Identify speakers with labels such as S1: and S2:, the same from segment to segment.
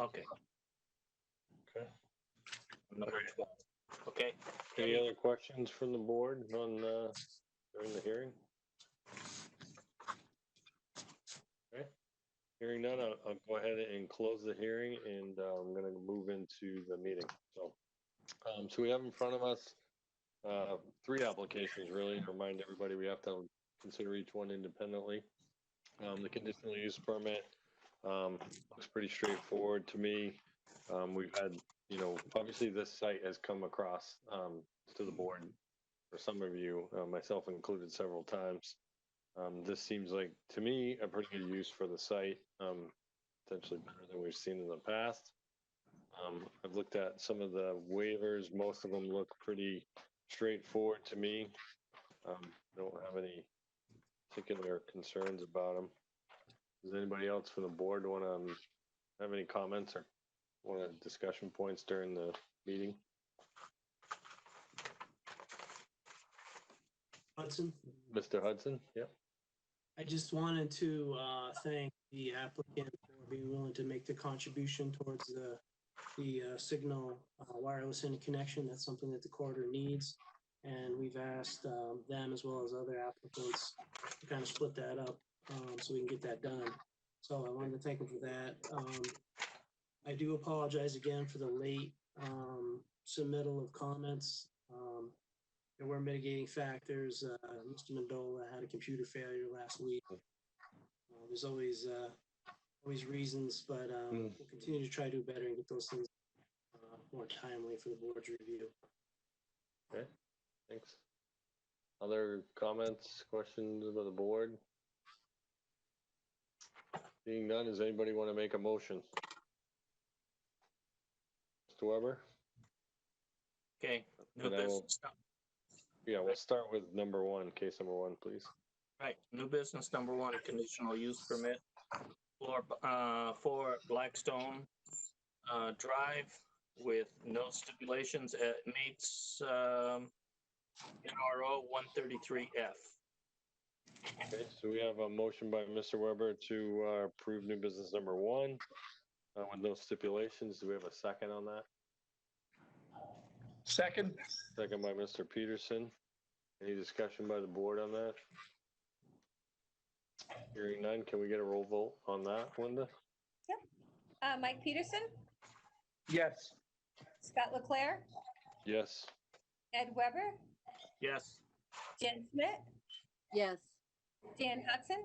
S1: Okay,
S2: Okay.
S1: number twelve. Okay,
S2: Any other questions from the board on, uh, during the hearing? Okay. Hearing none, I'll, I'll go ahead and close the hearing and, uh, I'm gonna move into the meeting, so. Um, so we have in front of us, uh, three applications really, remind everybody we have to consider each one independently. Um, the conditional use permit, um, looks pretty straightforward to me. Um, we've had you know, obviously this site has come across um, to the board for some of you, uh, myself included, several times. Um, this seems like, to me, a pretty good use for the site, um, potentially better than we've seen in the past. Um, I've looked at some of the waivers. Most of them look pretty straightforward to me. Um, don't have any particular concerns about them. Does anybody else from the board want to have any comments or one of the discussion points during the meeting.
S3: Hudson.
S2: Mr. Hudson? Yep.
S3: I just wanted to uh, thank the applicant for being willing to make the contribution towards the, the uh, signal uh, wireless interconnection. That's something that the corridor needs. And we've asked um, them as well as other applicants to kind of split that up um, so we can get that done. So I wanted to thank them for that. Um, I do apologize again for the late um, submittal of comments. Um, there were mitigating factors. Uh, Mr. Mandola had a computer failure last week. Uh, there's always uh, always reasons, but um,
S2: Mm.
S3: we'll continue to try to do better and get those things uh, more timely for the board's review.
S2: Thanks. Other comments, questions about the board? Being none, does anybody want to make a motion? Mr. Weber?
S1: okay. New
S2: And I will-
S1: business, num-
S2: Yeah, we'll start with number one, case number one, please.
S1: right, new business number one, conditional use permit for, uh, for Blackstone, uh, Drive with no stipulations. It meets, um, NRO one thirty-three F.
S2: Okay, so we have a motion by Mr. Weber to uh, approve new business number one uh, with no stipulations. Do we have a second on that?
S4: Second,
S2: Second by Mr. Peterson. Any discussion by the board on that? Hearing none, can we get a roll vote on that, Linda?
S5: Uh, Mike Peterson,
S4: yes.
S5: Scott Leclair,
S2: Yes.
S5: Ed Weber,
S1: Yes,
S5: Jen Schmidt,
S6: Yes,
S5: Dan Hudson,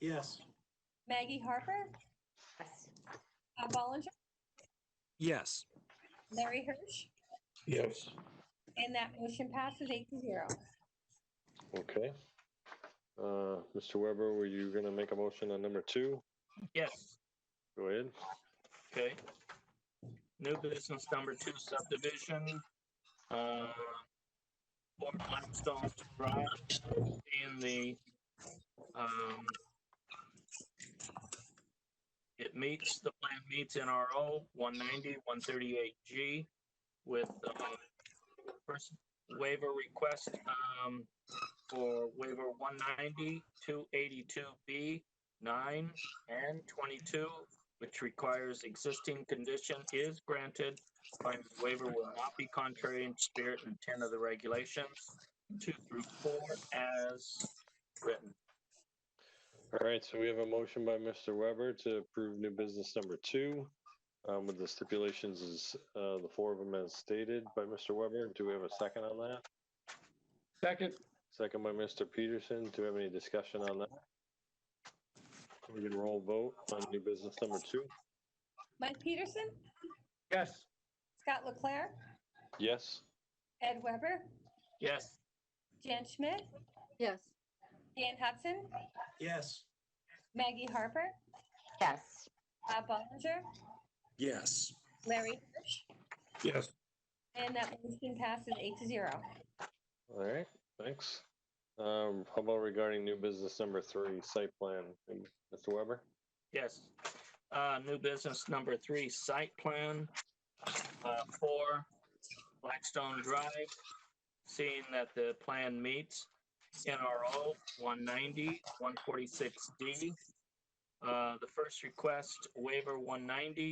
S3: Yes.
S5: Maggie Harper. Bob Ballinger,
S7: Yes.
S5: Larry Hirsch,
S4: Yes.
S5: and that motion passes eight to zero.
S2: Okay. Uh, Mr. Weber, were you gonna make a motion on number two?
S1: yes,
S2: Go ahead.
S1: okay. New business number two, subdivision, uh, for Blackstone Drive in the, um, it meets, the plan meets NRO 190, 138G with, um, first waiver request, um, for waiver 190, 282B, 9, and 22, which requires existing condition is granted. Finding the waiver will not be contrary in spirit and intent of the regulations, two through four as written.
S2: All right, so we have a motion by Mr. Weber to approve new business number two. Um, with the stipulations is, uh, the four of them as stated by Mr. Weber. Do we have a second on that?
S4: Second,
S2: Second by Mr. Peterson. Do we have any discussion on that? We can roll vote on new business number two.
S5: Mike Peterson,
S4: yes.
S5: Scott Leclair,
S2: Yes,
S5: Ed Weber,
S1: Yes,
S5: Jen Schmidt,
S6: yes,
S5: Dan Hudson,
S3: Yes.
S5: Maggie Harper,
S8: Yes.
S5: Bob Ballinger,
S7: Yes.
S5: Larry Hirsch,
S4: Yes.
S5: and that motion passes eight to zero.
S2: all right, thanks. Um, how about regarding new business number three, site plan, Mr. Weber?
S1: yes. Uh, new business number three, site plan, uh, for Blackstone Drive. Seeing that the plan meets NRO 190, 146D. Uh, the first request waiver 190,